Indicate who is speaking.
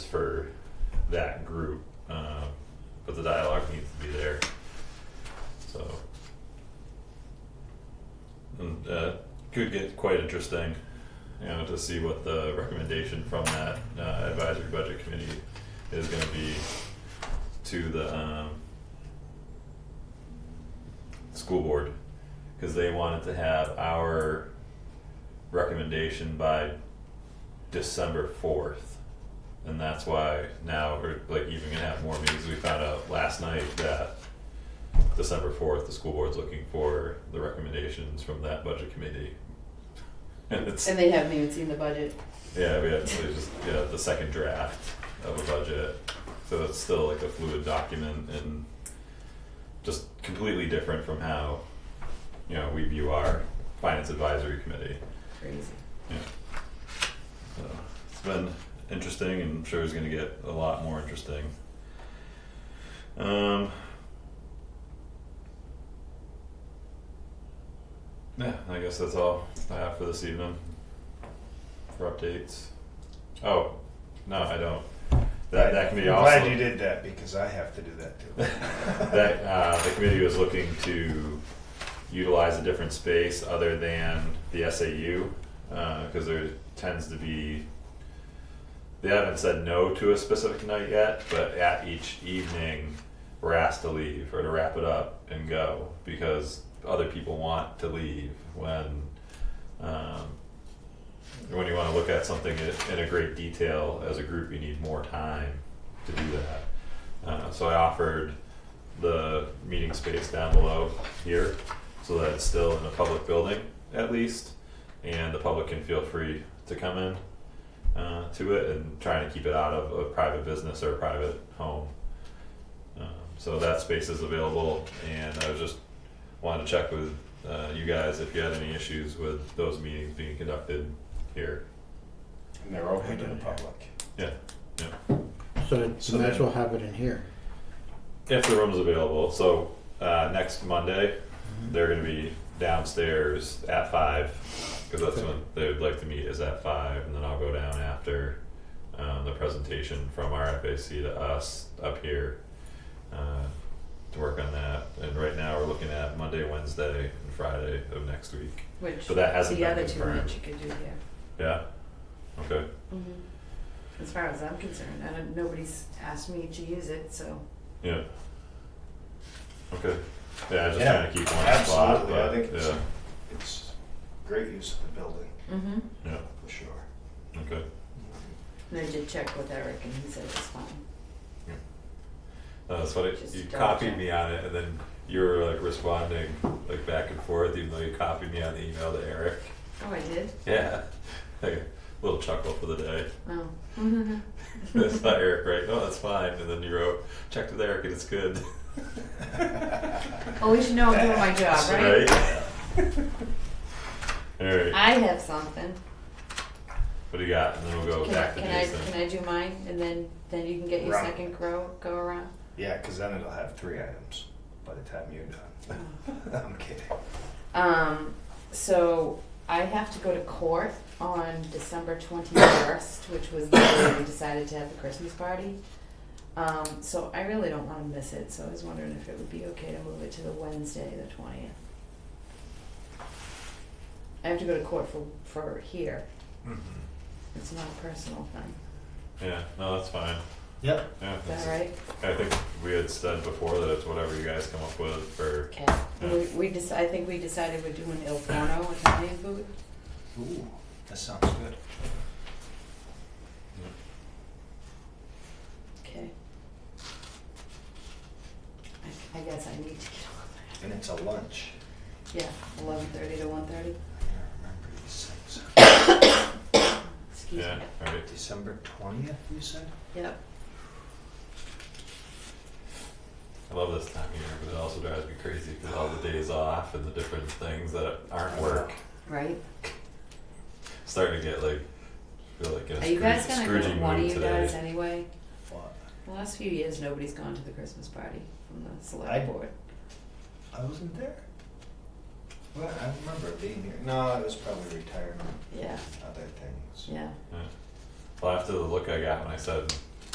Speaker 1: that group, um, but the dialogue needs to be there. So, and uh, could get quite interesting, you know, to see what the recommendation from that uh, advisory budget committee is going to be to the um, school board because they wanted to have our recommendation by December fourth. And that's why now we're like even gonna have more meetings. We found out last night that December fourth, the school board's looking for the recommendations from that budget committee. And it's,
Speaker 2: And they haven't even seen the budget.
Speaker 1: yeah, we have, it's just, yeah, the second draft of a budget. So it's still like a fluid document and just completely different from how, you know, we view our finance advisory committee.
Speaker 2: Crazy.
Speaker 1: So it's been interesting and I'm sure it's gonna get a lot more interesting. Um Yeah, I guess that's all I have for this evening. For updates. Oh, no, I don't. That that can be
Speaker 3: I'm
Speaker 1: also
Speaker 3: Glad you did that because I have to do that too.
Speaker 1: that uh, the committee was looking to utilize a different space other than the SAU, because uh, there tends to be, they haven't said no to a specific night yet, but at each evening, we're asked to leave or to wrap it up and go, because other people want to leave when, um, when you wanna look at something in, in a great detail as a group, you need more time to do that. Uh, so I offered the meeting space down below here, so that it's still in a public building at least, and the public can feel free to come in uh, to it and trying to keep it out of a private business or a private home. Um, so that space is available, and I was just wanted to check with uh, you guys if you had any issues with those meetings being conducted here.
Speaker 3: And they're open to the public.
Speaker 4: So then,
Speaker 3: So
Speaker 4: so might as
Speaker 3: then-
Speaker 4: well have it in here.
Speaker 1: If the room's available, so uh, next Monday, they're gonna be downstairs at five, cause that's when they would like to meet is at five, and then I'll go down after um, the presentation from our FAC to us up here uh, to work on that, and right now we're looking at Monday, Wednesday, and Friday of next week,
Speaker 2: Which
Speaker 1: but that hasn't
Speaker 2: the
Speaker 1: been
Speaker 2: other two
Speaker 1: confirmed.
Speaker 2: nights you could do here.
Speaker 1: Yeah, okay,
Speaker 2: As far as I'm concerned, I don't, nobody's asked me to use it, so.
Speaker 1: yeah. Okay, yeah, just
Speaker 3: Yeah,
Speaker 1: trying to keep one spot,
Speaker 3: Absolutely, I
Speaker 1: but,
Speaker 3: think it's,
Speaker 1: yeah,
Speaker 3: it's great use of the building,
Speaker 2: Mm-hmm.
Speaker 3: for sure.
Speaker 1: okay,
Speaker 2: And I did check with Eric and he said it's fine.
Speaker 1: Uh, that's funny.
Speaker 2: Just
Speaker 1: You
Speaker 2: double
Speaker 1: copied
Speaker 2: check.
Speaker 1: me on it, and then you were like responding like back and forth, even though you copied me on the email to Eric.
Speaker 2: Oh, I did?
Speaker 1: Yeah, like a little chuckle for the day.
Speaker 2: Oh.
Speaker 1: That's not Eric, right? No, that's fine. And then you wrote, checked with Eric, and it's good,
Speaker 2: At least you know I'm doing my job, right?
Speaker 1: right? All right.
Speaker 2: I have something.
Speaker 1: What do you got? And then we'll go
Speaker 2: Can I,
Speaker 1: back to
Speaker 2: can I,
Speaker 1: Jason.
Speaker 2: can I do mine and then, then you can get your
Speaker 3: Round.
Speaker 2: second grow, go around?
Speaker 3: Yeah, cause then it'll have three items by the time you're done. I'm kidding.
Speaker 2: Um, so I have to go to court on December twenty-first, which was the day we decided to have the Christmas party. Um, so I really don't wanna miss it, so I was wondering if it would be okay to move it to the Wednesday, the twentieth. I have to go to court for, for here,
Speaker 1: Mhm.
Speaker 2: it's not a personal thing,
Speaker 1: Yeah, no, that's fine.
Speaker 3: Yep.
Speaker 1: Yeah,
Speaker 2: is
Speaker 1: that's-
Speaker 2: that right?
Speaker 1: I think we had said before that it's whatever you guys come up with for.
Speaker 2: Okay,
Speaker 1: Yeah.
Speaker 2: we, we deci- I think we decided we're doing Il Forno Italian food,
Speaker 3: Ooh, that sounds good.
Speaker 2: okay. I, I guess I need to get on that.
Speaker 3: And it's a lunch.
Speaker 2: Yeah, eleven thirty to one thirty,
Speaker 3: I remember these things.
Speaker 2: excuse
Speaker 1: Yeah,
Speaker 2: me.
Speaker 1: all right.
Speaker 3: December twentieth, you said?
Speaker 2: Yep,
Speaker 1: I love this time of year, but it also drives me crazy because all the days off and the different things that aren't work
Speaker 2: right?
Speaker 1: starting to get like feel like in a
Speaker 2: Are you guys
Speaker 1: Scroo-
Speaker 2: gonna go,
Speaker 1: Scroogey
Speaker 2: one of
Speaker 1: mood
Speaker 2: you
Speaker 1: today.
Speaker 2: guys anyway?
Speaker 3: What?
Speaker 2: The last few years, nobody's gone to the Christmas party from the
Speaker 3: I-
Speaker 2: select board.
Speaker 3: I wasn't there. Well, I remember it being here. No, it was probably retirement,
Speaker 2: Yeah,
Speaker 3: other things.
Speaker 2: yeah.
Speaker 1: Well, after the look I got when I said